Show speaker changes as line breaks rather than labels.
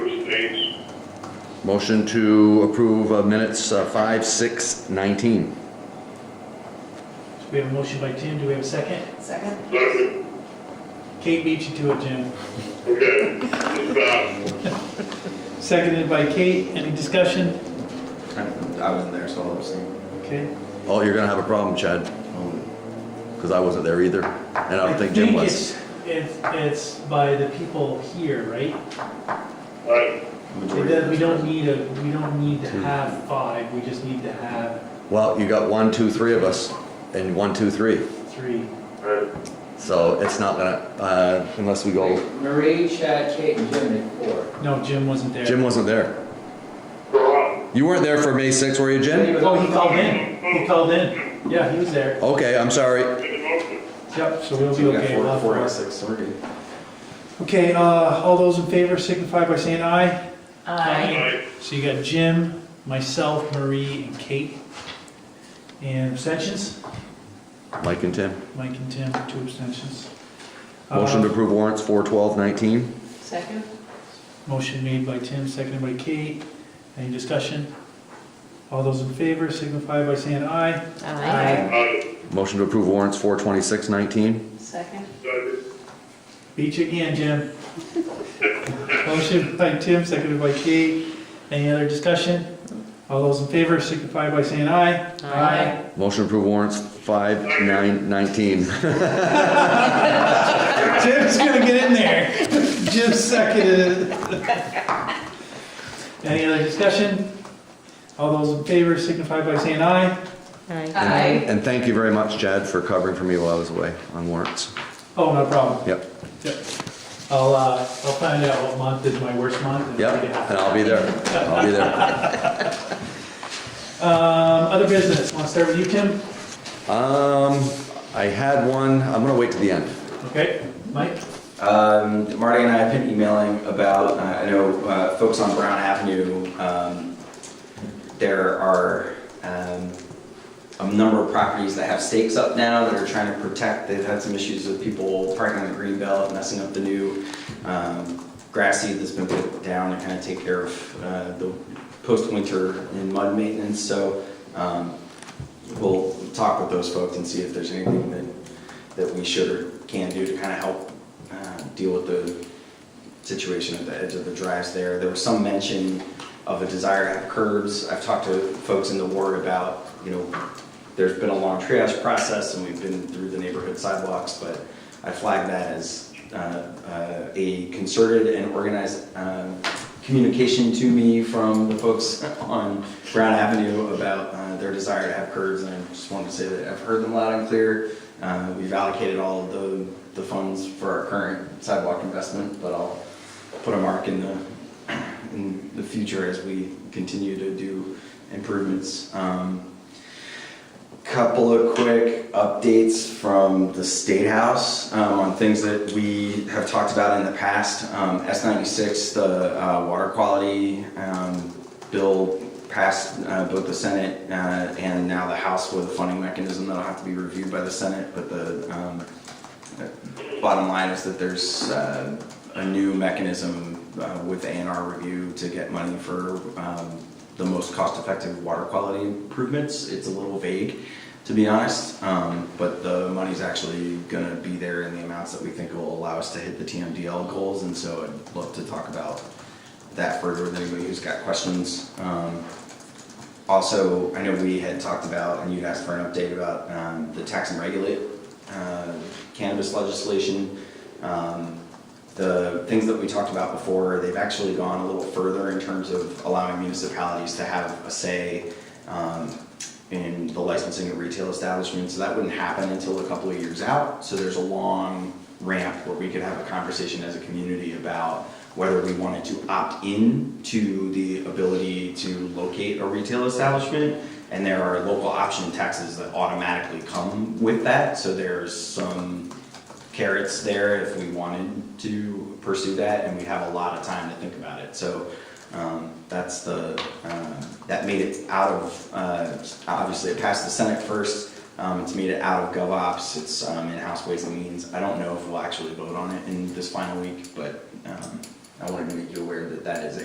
Motion to approve uh, minutes uh, 5, 6, 19.
So we have a motion by Tim, do we have a second?
Second?
Second,
Kate beat you to it, Jim.
okay, it's, uh,
Seconded by Kate, any discussion?
I wasn't there, so I'll abstain.
Okay.
Oh, you're gonna have a problem, Chad,
oh,
because I wasn't there either, and I don't think Jim was.
it's- It's, it's by the people here, right?
I,
It does- We don't need a, we don't need to have five, we just need to have
Well, you got one, two, three of us, and one, two, three.
three.
I,
So it's not gonna, uh, unless we go,
Marie, Chad, Kate, and Jim at four.
No, Jim wasn't there.
Jim wasn't there.
so,
You weren't there for May 6, were you, Jim?
Oh, he called in, he called in, yeah, he was there.
Okay, I'm sorry.
uh, make a motion.
Yep, so we'll
So
be
we got
okay.
four-
We'll have
Four out
four.
of six, so we're good.
Okay, uh, all those in favor signify by saying aye.
Aye.
So you got Jim, myself, Marie, and Kate. And abstentions?
Mike and Tim.
Mike and Tim, two abstentions.
Motion to
Uh,
approve warrants 4, 12, 19.
Second?
Motion made by Tim, seconded by Kate. Any discussion? All those in favor signify by saying aye.
Aye.
Motion to approve warrants 4, 26, 19.
Second?
Second.
Beat you again, Jim. Motion by Tim, seconded by Kate. Any other discussion? All those in favor signify by saying aye.
Aye.
Motion to approve warrants 5, 9, 19.
Jim's gonna get in there. Jim seconded it. Any other discussion? All those in favor signify by saying aye.
Aye.
And thank you very much, Chad, for covering for me while I was away on warrants.
Oh, no problem.
Yep,
Yep. I'll, uh, I'll find out what month is my worst month. and
yep,
I'll get out.
and I'll be there. I'll be there.
Um, other business, wanna start with you, Tim?
Um, I had one, I'm gonna wait to the end.
Okay, Mike?
Um, Marty and I have been emailing about, uh, I know uh, folks on Brown Avenue, um, there are um, a number of properties that have stakes up now that are trying to protect, they've had some issues with people parking on the green belt, messing up the new um, grass seed that's been put down to kind of take care of uh, the post-winter and mud maintenance. So um, we'll talk with those folks and see if there's anything that, that we should or can do to kind of help uh, deal with the situation at the edge of the drives there. There was some mention of a desire to have curbs. I've talked to folks in the ward about, you know, there's been a long triage process and we've been through the neighborhood sidewalks, but I flagged that as uh, uh, a concerted and organized um, communication to me from the folks on Brown Avenue about uh, their desire to have curbs, and I just wanted to say that I've heard them loud and clear. Uh, We've allocated all of the, the funds for our current sidewalk investment, but I'll put a mark in the, in the future as we continue to do improvements. Um, couple of quick updates from the State House um, on things that we have talked about in the past. Um, S96, the uh, water quality um, bill passed uh, both the Senate uh, and now the House with a funding mechanism that'll have to be reviewed by the Senate, but the um, Bottom line is that there's uh, a new mechanism uh, with ANR review to get money for um, the most cost-effective water quality improvements. It's a little vague, to be honest, um, but the money's actually gonna be there in the amounts that we think will allow us to hit the TMDL goals, and so I'd love to talk about that further with anybody who's got questions. Um, Also, I know we had talked about, and you asked for an update about um, the tax and regulate uh, cannabis legislation. Um, The things that we talked about before, they've actually gone a little further in terms of allowing municipalities to have a say um, in the licensing of retail establishments. So That wouldn't happen until a couple of years out. So there's a long ramp where we could have a conversation as a community about whether we wanted to opt in to the ability to locate a retail establishment. And there are local option taxes that automatically come with that. So there's some carrots there if we wanted to pursue that, and we have a lot of time to think about it. So um, that's the, um, that made it out of, uh, obviously it passed the Senate first. Um, It's made it out of GovOps, it's um, in House Ways and Means. I don't know if we'll actually vote on it in this final week, but um, I wanted to make you aware that that is a